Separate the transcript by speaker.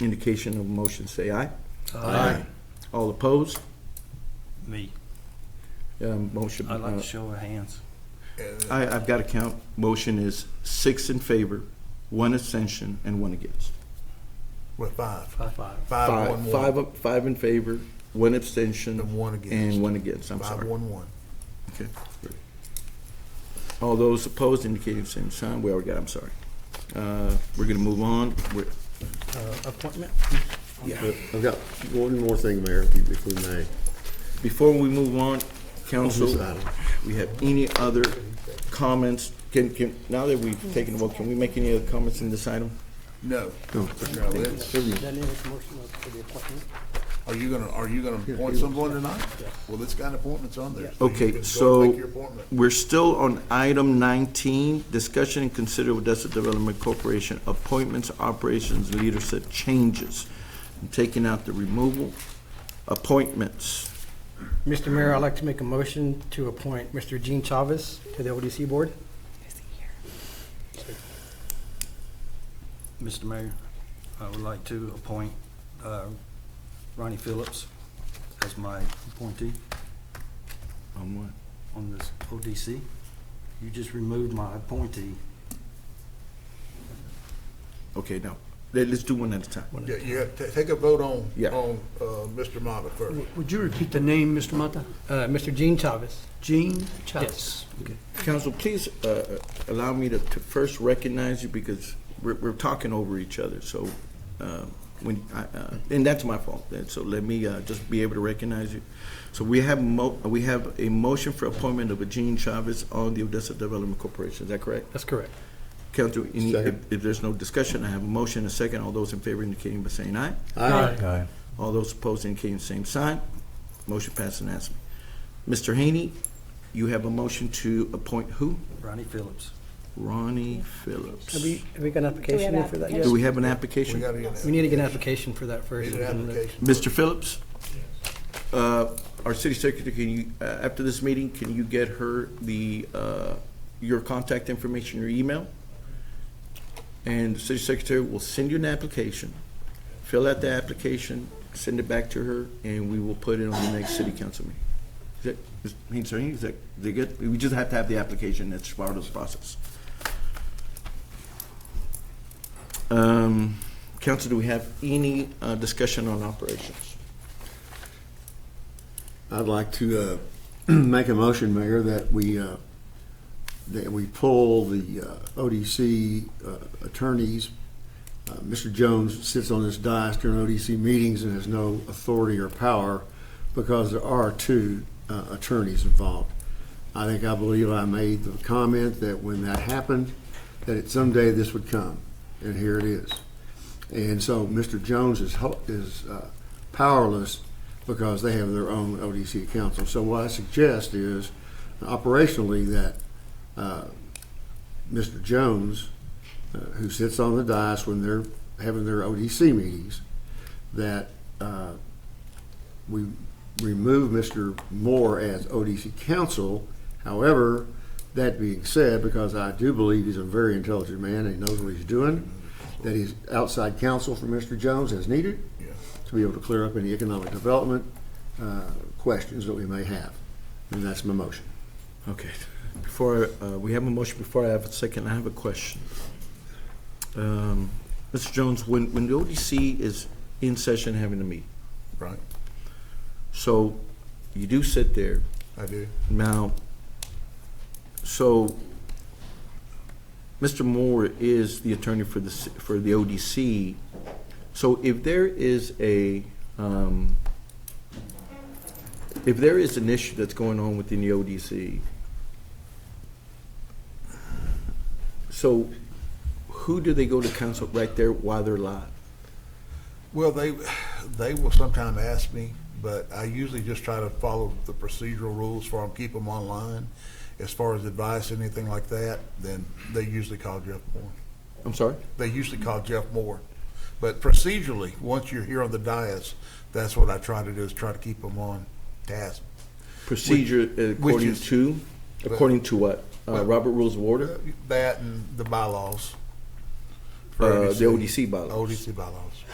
Speaker 1: indication of motion, say aye.
Speaker 2: Aye.
Speaker 1: All opposed?
Speaker 2: Me,
Speaker 1: Um, Motion,
Speaker 2: I'd like
Speaker 1: uh,
Speaker 2: to show our hands.
Speaker 1: I, I've got to count. Motion is six in favor, one abstention, and one against.
Speaker 3: With five.
Speaker 2: Five, five.
Speaker 3: Five, one,
Speaker 1: Five,
Speaker 3: one.
Speaker 1: up- five in favor, one abstention.
Speaker 3: And one against.
Speaker 1: And one against, I'm
Speaker 3: Five,
Speaker 1: sorry.
Speaker 3: one, one.
Speaker 1: Okay. All those opposed indicating same sign. We already got, I'm sorry. Uh, We're going to move on. We're-
Speaker 2: Appointment?
Speaker 4: I've got one more thing, Mayor, if you- if we may.
Speaker 1: Before we move on, council,
Speaker 4: Move on.
Speaker 1: we have any other comments? Can, can, now that we've taken a vote, can we make any other comments in this item?
Speaker 3: No.
Speaker 4: No.
Speaker 3: No, it's- Are you gonna, are you gonna appoint someone tonight? Well, it's got appointments on there. so you can go
Speaker 1: Okay,
Speaker 3: and
Speaker 1: so
Speaker 3: make your appointment.
Speaker 1: we're still on item 19, discussion and consider Odessa Development Corporation appointments, operations, leadership changes. I'm Taking out the removal, appointments.
Speaker 5: Mr. Mayor, I'd like to make a motion to appoint Mr. Gene Chavez to the ODC Board.
Speaker 2: Mr. Mayor, I would like to appoint uh, Ronnie Phillips as my appointee
Speaker 1: On what?
Speaker 2: on this ODC. You just removed my appointee.
Speaker 1: Okay, now, let- let's do one at a time.
Speaker 3: Yeah, you have, ta- take a vote on,
Speaker 1: Yeah.
Speaker 3: on, uh, Mr. Mata first.
Speaker 6: Would you repeat the name, Mr. Mata?
Speaker 5: Uh, Mr. Gene Chavez.
Speaker 6: Gene Chavez.
Speaker 1: Council, please uh, allow me to to first recognize you because we're we're talking over each other, so, uh, when, I- uh, and that's my fault, and so let me uh, just be able to recognize you. So we have, mo- we have a motion for appointment of Gene Chavez on the Odessa Development Corporation, is that correct?
Speaker 5: That's correct.
Speaker 1: Council, any- if
Speaker 4: Second.
Speaker 1: if there's no discussion, I have a motion, and a second, all those in favor indicating by saying aye.
Speaker 4: Aye.
Speaker 1: All those opposed indicating same sign. Motion passed unanimously. Mr. Haney, you have a motion to appoint who?
Speaker 2: Ronnie Phillips.
Speaker 1: Ronnie Phillips.
Speaker 5: Have we, have we got an
Speaker 7: Do we
Speaker 5: application
Speaker 7: have
Speaker 5: in for that yet?
Speaker 1: Do we have an
Speaker 3: We
Speaker 1: application?
Speaker 3: gotta get an,
Speaker 5: We need to get an application for that first.
Speaker 3: need an application.
Speaker 1: Mr. Phillips? Uh, Our city secretary, can you, uh, after this meeting, can you get her the, uh, your contact information, your email? And the city secretary will send you an application, fill out the application, send it back to her, and we will put it on the next city council meeting. Is that, is, I mean, sorry, is that, is that good? We just have to have the application, that's part of the process. Um, Council, do we have any uh, discussion on operations?
Speaker 4: I'd like to uh, make a motion, Mayor, that we, uh, that we pull the uh, ODC uh, attorneys. Uh, Mr. Jones sits on this dais during ODC meetings and has no authority or power because there are two uh, attorneys involved. I think, I believe I made the comment that when that happened, that it someday this would come, and here it is. And so Mr. Jones is, hel- is uh, powerless because they have their own ODC council. So what I suggest is operationally that uh, Mr. Jones, uh, who sits on the dais when they're having their ODC meetings, that uh, we remove Mr. Moore as ODC counsel. However, that being said, because I do believe he's a very intelligent man and he knows what he's doing, that he's outside counsel for Mr. Jones as needed
Speaker 3: Yeah.
Speaker 4: to be able to clear up any economic development uh, questions that we may have. And that's my motion.
Speaker 1: Okay, before, uh, we have a motion, before I have a second, I have a question. Um, Mr. Jones, when, when the ODC is in session having a meeting,
Speaker 3: Right,
Speaker 1: so you do sit there,
Speaker 3: I do.
Speaker 1: now, so Mr. Moore is the attorney for the, ci- for the ODC. So if there is a, um, if there is an issue that's going on within the ODC, so who do they go to counsel right there while they're live?
Speaker 3: Well, they, they will sometime ask me, but I usually just try to follow the procedural rules for them, keep them online. As far as advice, anything like that, then they usually call Jeff Moore.
Speaker 1: I'm sorry?
Speaker 3: They usually call Jeff Moore. But procedurally, once you're here on the dais, that's what I try to do, is try to keep them on task.
Speaker 1: Procedure
Speaker 3: which
Speaker 1: according
Speaker 3: is-
Speaker 1: to, according to what? Uh,
Speaker 3: Well- uh,
Speaker 1: Robert Rules of Order?
Speaker 3: That and the bylaws. for
Speaker 1: Uh, the ODC bylaws.
Speaker 3: ODC bylaws.